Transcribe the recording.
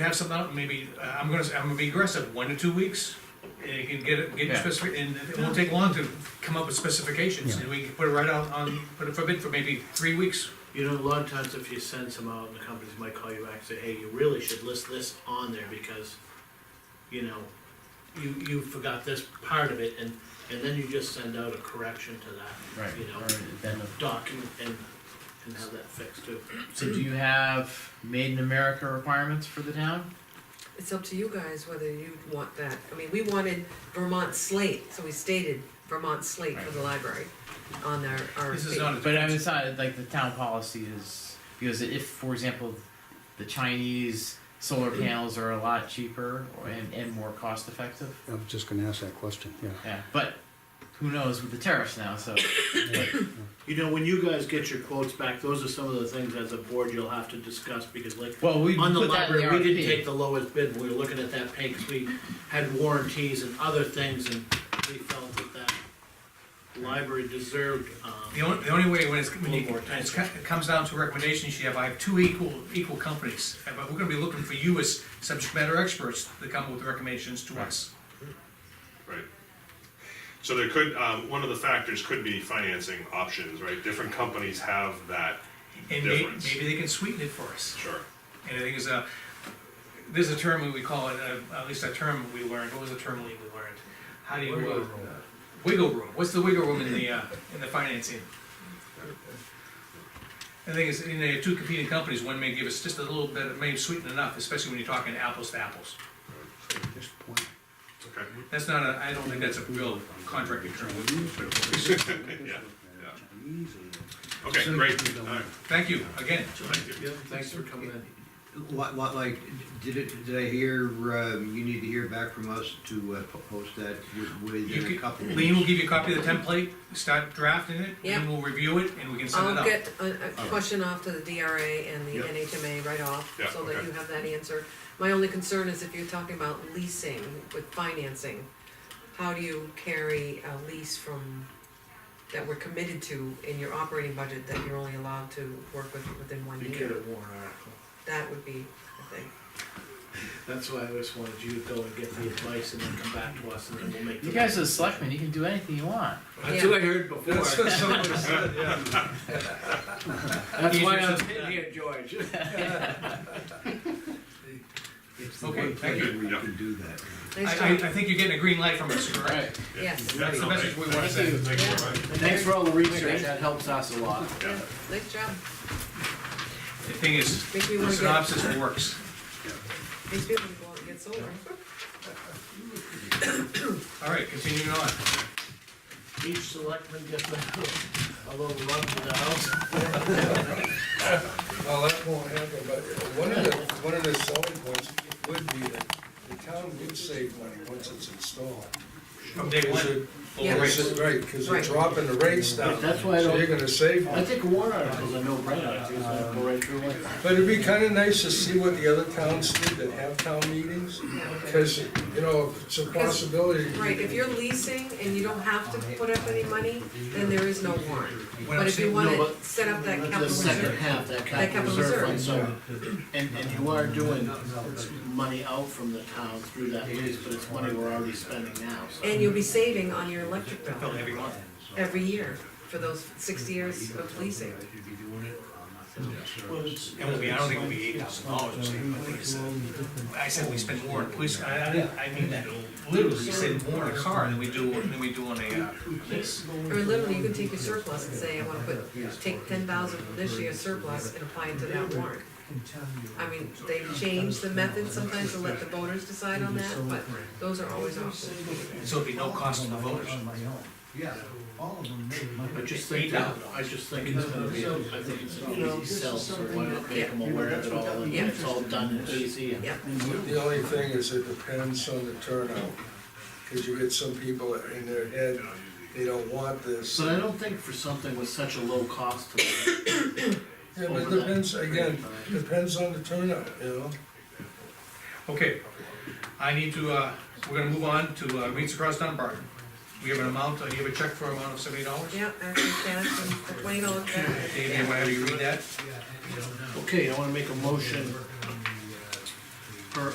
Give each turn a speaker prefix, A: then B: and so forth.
A: have something out, maybe, uh, I'm gonna, I'm gonna be aggressive, one to two weeks, and you can get it, get your
B: Yeah.
A: specific, and it won't take long to come up with specifications, and we can put it right out on, put it for bid for maybe three weeks.
C: You know, a lot of times if you send some out, the companies might call you back and say, hey, you really should list this on there because, you know, you, you forgot this part of it, and, and then you just send out a correction to that.
B: Right,
C: You know,
B: or then the-
C: document and, and have that fixed too.
B: so do you have made in America requirements for the town?
D: It's up to you guys whether you want that. I mean, we wanted Vermont slate, so we stated Vermont slate for the library on our RFP.
A: This is not a.
B: But I mean, it's not like the town policy is, because if, for example, the Chinese solar panels are a lot cheaper or- and, and more cost effective,
E: I was just gonna ask that question, yeah.
B: yeah, but who knows with the tariffs now, so,
C: You know, when you guys get your quotes back, those are some of the things as a board you'll have to discuss because like
B: well, we
C: on the
B: put that in the
C: library, we didn't take
B: RFP.
C: the lowest bid, we were looking at that pay, 'cause we had warranties and other things, and we felt that that library deserved,
A: The
C: um,
A: only, the only way when it's, when you,
C: One more time.
A: it's, it comes down to recommendations, you have, I have two equal, equal companies, Uh, but we're gonna be looking for you as subject matter experts to come up with recommendations to us.
F: Right. So there could, um, one of the factors could be financing options, right? Different companies have that
A: And may,
F: difference.
A: maybe they can sweeten it for us.
F: Sure.
A: And I think it's a, there's a term we call it, uh, at least a term we learned, what was the term we learned? How do you? Wiggle room. Wiggle room, what's the wiggle room in the, uh, in the financing? The thing is, you know, you have two competing companies, one may give us just a little bit, may sweeten enough, especially when you're talking apples to apples.
E: Just point.
F: Okay.
A: That's not a, I don't think that's a real contracting term.
F: Yeah, Okay, great. All right.
A: Thank you, again.
F: Thank you.
C: thanks for coming in.
G: What, what, like, did it, did I hear, um, you need to hear back from us to uh, po- post that wi-
A: You
G: within a
A: could-
G: couple of
A: Lean will
G: weeks?
A: give you a copy of the template, start drafting it,
D: Yeah.
A: Lean will review it, and we can send it
D: I'll
A: out.
D: get a, a question off to the DRA and the
G: Yeah.
D: NHMA right off,
F: Yeah,
D: so that
F: okay.
D: you have that answered. My only concern is if you're talking about leasing with financing, how do you carry a lease from, that we're committed to in your operating budget that you're only allowed to work with within one
C: You get a
D: year?
C: warrant article.
D: That would be a thing.
C: That's why I just wanted you to go and get the advice and then come back to us and then we'll make.
B: You
C: the-
B: guys are the selectmen, you can do anything you want.
C: That's what I heard before. That's why I'm sitting here, George.
G: It's the
A: Okay,
G: one
A: thank
G: place
A: you.
G: where you
F: Yeah.
G: can do that.
D: Nice
A: I, I,
D: job,
A: I think you're getting a green light from us, correct?
B: Right.
D: yes,
F: Yeah,
A: That's the
F: no,
A: message we wanna
F: thank you.
A: send.
F: Thank you very much.
B: Thanks for all the research, that helps us a lot.
F: Yeah.
D: nice job,
A: The thing is,
D: Make me wanna
A: the
D: get-
A: synopsis works.
D: these people can go out and get solar.
A: All right, continuing on.
C: Each selectman gets a, a little run to the house.
H: Well, that won't happen, but one of the, one of the selling points would be that the town would save money once it's installed.
A: From day one,
D: Yeah.
A: lower rates.
H: Because it- Right, because they're
D: Right.
H: dropping the rates down,
C: That's why I
H: so
C: don't-
H: you're gonna save money.
C: think warrant articles are no brainer, it's gonna go right through it.
H: But it'd be kinda nice to see what the other towns do that have town meetings, because, you know, if it's a possibility.
D: Right, if you're leasing and you don't have to put up any money, then there is no warrant.
A: I'm
D: But if you
A: saying-
D: wanna
C: No, but-
D: set up that capital
C: The second
D: reserve,
C: half, that
D: That
C: capital
D: capital
C: reserve fund, so,
D: reserve.
C: and, and you are doing money out from the town through that lease, but it's money we're already spending now, so.
D: and you'll be saving on your electric
A: That felt
D: bill
A: every month.
D: every year for those six years of leasing.
A: It won't be, I don't think it'll be eight thousand dollars, I think it's, uh, I said we spend more on police, I, I, I mean that, literally, we spend more on a car than we do, than we do on a, uh, this.
D: Or literally, you can take your surplus and say, I wanna put, take ten thousand from this year's surplus and apply it to that warrant. I mean, they change the method sometimes to let the voters decide on that, but those are always options.
A: So it'd be no cost to the voters.
G: Yeah, all of them made money.
C: I just think, that- I just think it's gonna be, I think it's an easy sell, so why not make them aware of it all, and
D: Yeah.
C: it's all done and easy, and
D: Yeah,
H: The only thing is it depends on the turnout, because you get some people in their head, they don't want this.
C: But I don't think for something with such a low cost to them.
H: Yeah, but it
C: over that
H: depends,
C: period
H: again,
C: of time.
H: depends on the turnout, you know?
A: Okay, I need to, uh, we're gonna move on to, uh, Reeds Across Dunbar. We have an amount, uh, you have a check for an amount of seventy dollars?
D: yeah, actually, cash and the twenty dollar cash.
A: Dave, you wanna have you read that?
C: Okay, I wanna make a motion for